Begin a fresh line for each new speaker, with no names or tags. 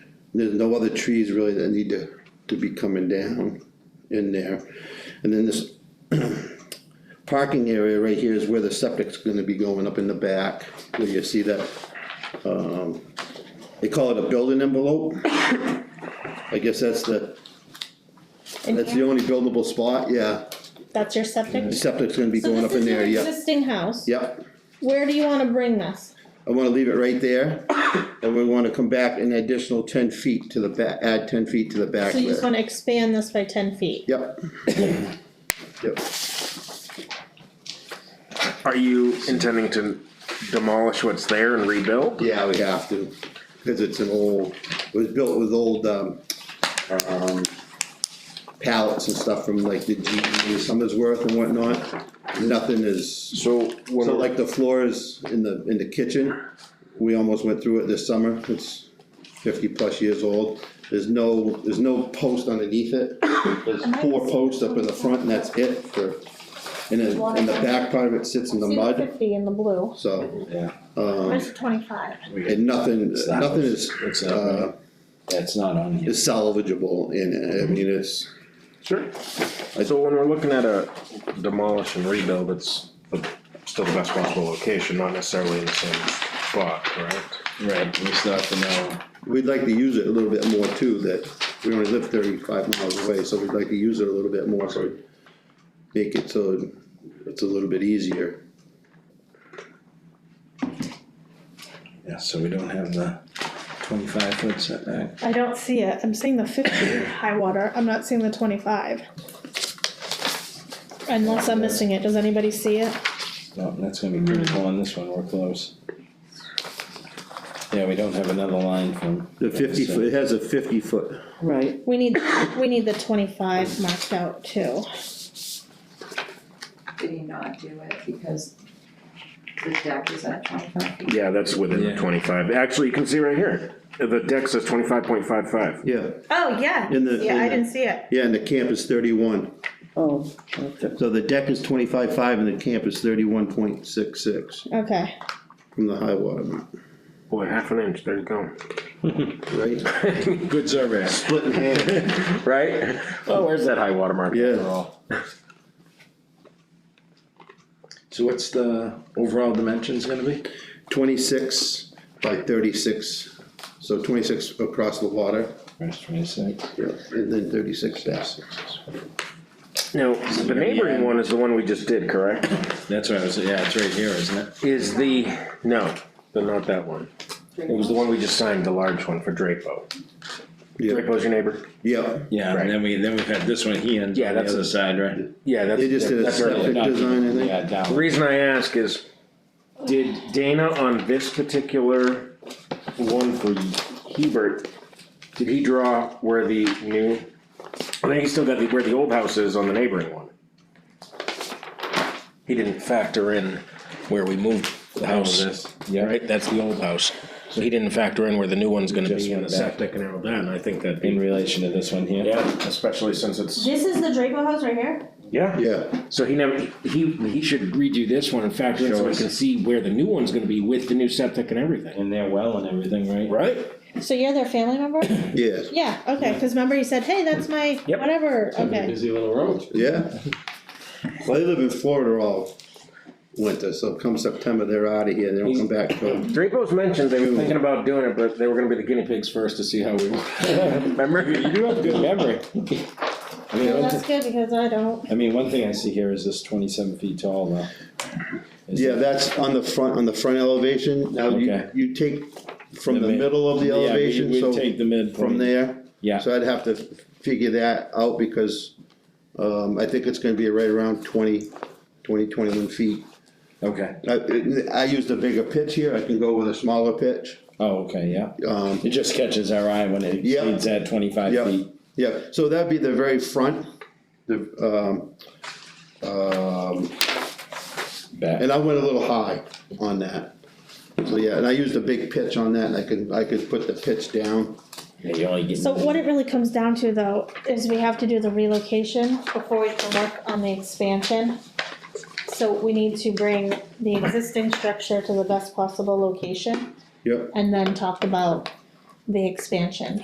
There's no other trees really that need to, to be coming down in there. And then this parking area right here is where the septic's gonna be going up in the back, where you see that, um, they call it a building envelope. I guess that's the,
In
that's the
here?
only buildable spot, yeah,
That's your septic?
the septic's gonna be
So
going
this
up in
is
there,
your
yep,
existing house.
yep.
Where do you wanna bring this?
I wanna leave it right there, and we wanna come back an additional ten feet to the back, add ten feet to the back
So you just
there.
wanna expand this by ten feet?
Yep. Yep,
Are you intending to demolish what's there and rebuild?
yeah, we have to, cause it's an old, it was built with old, um, um, pallets and stuff from like the GE Summersworth and whatnot. Nothing is,
So when
so like the floors in the, in the kitchen, we almost went through it this summer, it's fifty plus years old. There's no, there's no post underneath it, there's four posts up in the front and that's it for, and then, and the back part of it sits in the mud, Um,
fifty in the blue,
so,
Yeah,
where's the twenty-five?
and nothing,
It's not-
nothing is,
it's not-
uh,
that's not on here.
is salvageable in, I mean, it's,
Sure. So when we're looking at a demolish and rebuild, it's the, still the best possible location, not necessarily in the same spot, correct?
Right, we still have to know,
We'd like to use it a little bit more too, that we only live thirty-five miles away, so we'd like to use it a little bit more, so it'd make it so it's a little bit easier.
yeah, so we don't have the twenty-five foot setback.
I don't see it, I'm seeing the fifty high water, I'm not seeing the twenty-five. Unless I'm missing it, does anybody see it?
No, that's gonna be critical on this one, we're close. Yeah, we don't have another line from.
The fifty foot, it has a fifty foot,
Right,
We need, we need the twenty-five marked out too.
Did he not do it because the deck is at twenty-five feet?
Yeah, that's within the
Yeah.
twenty-five. Actually, you can see right here, the deck says twenty-five point five five.
yeah,
Oh, yeah,
In the-
yeah,
in
I
the-
didn't see it.
yeah, and the camp is thirty-one,
oh, okay,
so the deck is twenty-five-five and the camp is thirty-one point six-six
Okay,
from the high water mark,
Boy, half an inch, there you go.
right?
Good survey.
Split in half,
Right? Oh, where's that high water mark?
yeah,
Overall. So what's the overall dimensions gonna be?
twenty-six by thirty-six, so twenty-six across the water,
First twenty-six.
yeah, and then thirty-six back.
Now, the neighboring one is the one we just did, correct?
That's what I was, yeah, it's right here, isn't it?
Is the, no, but not that one. It was the one we just signed, the large one for Drapo.
Yeah,
Drapo's your neighbor?
yeah.
Yeah,
Right.
and then we, then we've had this one here and
Yeah,
on the
that's
other
a-
side, right?
Yeah, that's.
They just did a
that's right.
Septic design, I think.
Yeah,
The
down,
reason I ask is, did Dana on this particular one for Hebert, did he draw where the new? I think he still got the, where the old house is on the neighboring one. He didn't factor in where we moved the house,
yeah.
right, that's the old house. So he didn't factor in where the new one's gonna
Just
be in the
went back.
septic and all that, and I think that'd
in
be.
relation to this one here.
especially since it's.
this is the Draco house right here?
Yeah.
Yeah,
So he never, he, he should redo this one and factor in so we can see where the new one's gonna be with the new septic and everything.
And their well and everything, right?
Right?
So you're their family member?
yeah,
Yeah, okay, cause remember you said, hey, that's my,
Yep.
whatever, okay,
Busy little road.
yeah. Well, they live in Florida all winter, so come September, they're out of here, they don't come back till,
Drapo's mentioned they were thinking about doing it, but they were gonna be the guinea pigs first to see how we. Remember?
You do have good memory. I mean,
well,
one
that's
thi-
good, because I don't,
I mean, one thing I see here is this twenty-seven feet tall though. Is
yeah,
it-
that's on the front, on the front elevation, now you,
Okay.
you take from
The
the
mid-
middle of the
Yeah, we-
elevation,
we
so
take the midpoint.
from there.
Yeah.
So I'd have to figure that out because, um, I think it's gonna be right around 20, 20, 21 feet.
Okay,
I, I used a bigger pitch here, I can go with a smaller pitch,
oh, okay, yeah,
um,
it just catches our eye when it
Yeah.
exceeds that twenty-five
Yeah.
feet.
Yeah, so that'd be the very front, the, um, um,
Back,
and I went a little high on that. So, yeah, and I used a big pitch on that, and I could, I could put the pitch down.
yeah, you only get.
so what it really comes down to though, is we have to do the relocation before we can work on the expansion. So we need to bring the existing structure to the best possible location
Yep.
and then talk about the expansion.